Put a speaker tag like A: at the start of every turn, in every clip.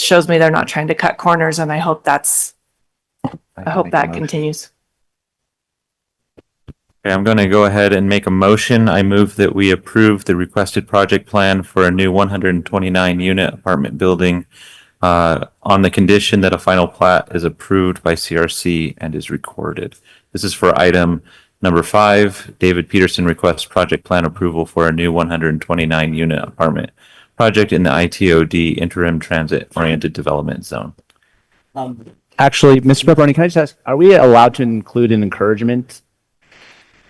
A: shows me they're not trying to cut corners and I hope that's, I hope
B: make a
A: that
B: motion.
A: continues.
C: Okay, I'm going to go ahead and make a motion. I move that we approve the requested project plan for a new 129-unit apartment building uh, on the condition that a final plat is approved by CRC and is recorded. This is for item number five. David Peterson requests project plan approval for a new 129-unit apartment project in the ITOD interim transit-oriented development zone.
D: Actually, Mr. Pepperoni, can I just ask, are we allowed to include an encouragement?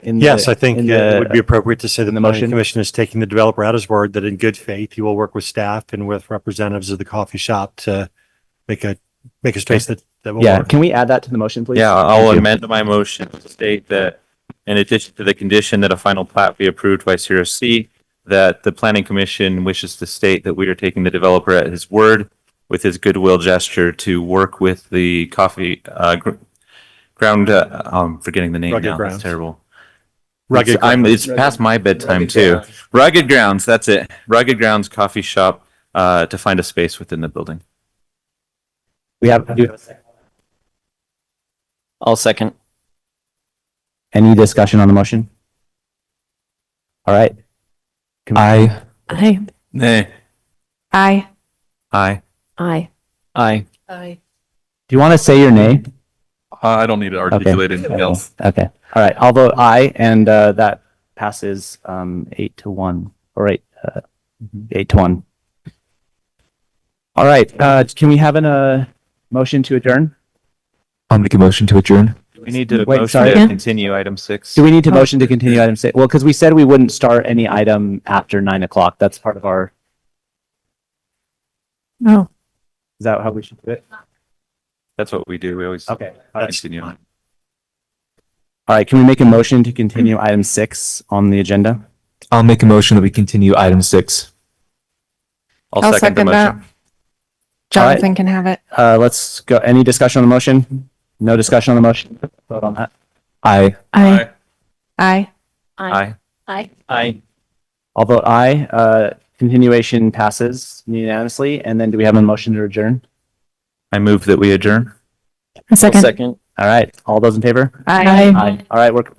D: in the-
E: Yes, I think
D: in
E: uh,
D: the-
E: it would be appropriate to say that
D: in
E: the
D: the
E: planning
D: motion?
E: commission is taking the developer at his word that in good faith, he will work with staff and with representatives of the coffee shop to make a, make a space that, that will
D: Yeah,
E: work.
D: can we add that to the motion, please?
C: Yeah, I'll
D: Thank you.
C: amend my motion to state that in addition to the condition that a final plat be approved by CRC, that the planning commission wishes to state that we are taking the developer at his word with his goodwill gesture to work with the coffee, uh, gr- ground, uh, I'm forgetting the name
E: Rugged
C: now, that's
E: Grounds.
C: terrible.
E: Rugged
C: It's- I'm, it's past my bedtime too. Rugged Grounds, that's it. Rugged Grounds Coffee Shop, uh, to find a space within the building.
D: We have, do-
B: I'll second.
D: any discussion on the motion? All right.
B: Aye.
A: Aye.
C: Nay.
A: Aye.
C: Aye.
A: Aye.
B: Aye.
A: Aye.
D: Do you want to say your name?
C: I don't need to
D: articulate
C: anything
D: Okay, all right, I'll vote aye, and uh, that passes um, eight to one, or eight, uh, eight to one. All right, uh, can we have an, uh, motion to adjourn?
B: I'll make a motion to adjourn.
C: We need to
D: Wait,
C: motion
D: sorry.
C: to continue item six.
D: Do we need to
A: Oh.
D: motion to continue item six? Well, because we said we wouldn't start any item after nine o'clock, that's part of our,
A: No.
D: is that how we should do it?
C: That's what we do. We always
D: Okay, all right,
C: continue.
D: all right, can we make a motion to continue item six on the agenda?
B: I'll make a motion that we continue item six.
C: I'll second the motion.
D: Alright.
A: Jonathan can have it.
D: Uh, let's go, any discussion on the motion? No discussion on the motion? Vote on that.
B: Aye.
A: Aye. Aye.
C: Aye.
B: Aye.
D: I'll vote aye. Uh, continuation passes unanimously. And then do we have a motion to adjourn?
C: I move that we adjourn.
A: A second.
B: Second.
D: All right. All those in favor?
A: Aye.
D: Aye. All right. We're,